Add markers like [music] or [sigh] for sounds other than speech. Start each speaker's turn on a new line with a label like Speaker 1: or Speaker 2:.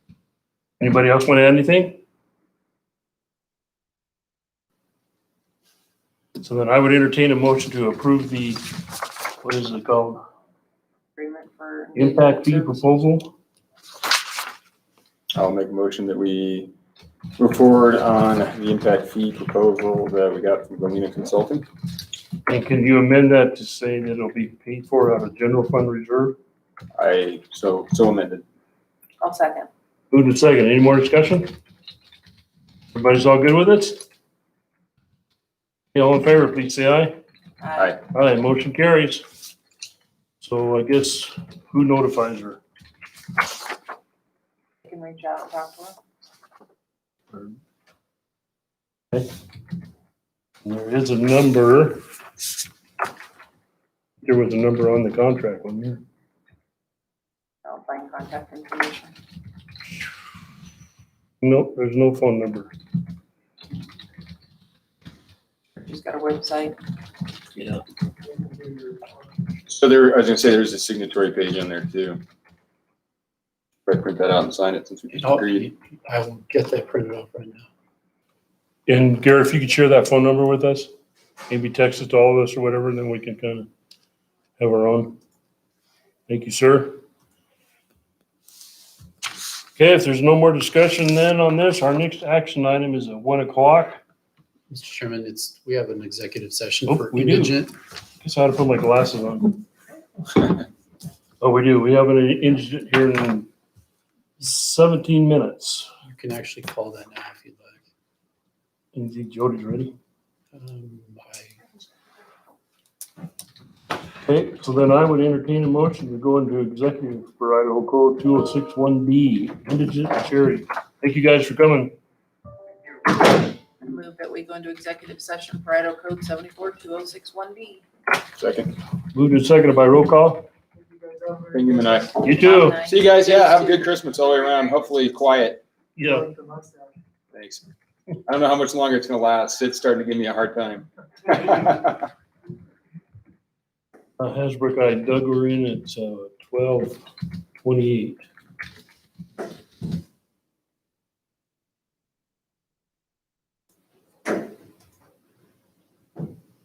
Speaker 1: Anybody else want to add anything? So then I would entertain a motion to approve the, what is it called?
Speaker 2: agreement for.
Speaker 1: Impact fee proposal?
Speaker 3: I'll make a motion that we move forward on the impact fee proposal that we got from Romina Consulting.
Speaker 1: And can you amend that to say that it'll be paid for out of general fund reserve?
Speaker 3: I, so, so amended.
Speaker 2: I'll second.
Speaker 1: Moved and second. Any more discussion? Everybody's all good with it? Okay, All in favor, please say aye.
Speaker 3: Aye.
Speaker 1: Aye, motion carries. So I guess who notifies her?
Speaker 2: You can reach out and talk to her.
Speaker 1: There is a number. There was a number on the contract, wasn't there?
Speaker 2: I'll find contact information.
Speaker 1: Nope, there's no phone number.
Speaker 2: She's got a website.
Speaker 1: Yeah.
Speaker 3: So there, I was gonna say, there's a signatory page on there too. Right, print that out and sign it since we just
Speaker 4: I'll-
Speaker 3: agreed.
Speaker 4: I will get that printed off right now.
Speaker 1: And Gary, if you could share that phone number with us, maybe text it to all of us or whatever, and then we can kind of have our own. Thank you, sir. Okay, if there's no more discussion then on this, our next action item is at one o'clock.
Speaker 4: Mr. Chairman, it's, we have an executive session
Speaker 1: Oh,
Speaker 4: for
Speaker 1: we do.
Speaker 4: indigent.
Speaker 1: Guess I had to put my glasses on. Oh, we do. We have an indigent here in seventeen minutes.
Speaker 4: You can actually call that now if you'd like.
Speaker 1: And you think Jody's ready?
Speaker 4: Um, I-
Speaker 1: Okay, so then I would entertain a motion to go into executive for Idaho Code two oh six one B, indigent charity. Thank you guys for coming.
Speaker 2: I move that we go into executive session for Idaho Code seventy-four two oh six one B.
Speaker 3: Second,
Speaker 1: Moved and seconded by roll call.
Speaker 3: Bingham and I.
Speaker 1: You too.
Speaker 3: See you guys, yeah, have a good Christmas all the way around, hopefully quiet.
Speaker 1: Yeah.
Speaker 3: Thanks. I don't know how much longer it's gonna last. Sid's starting to give me a hard time. [laughs]
Speaker 1: Uh, Hasbrook, I Doug, we're in at twelve uh, twenty-eight.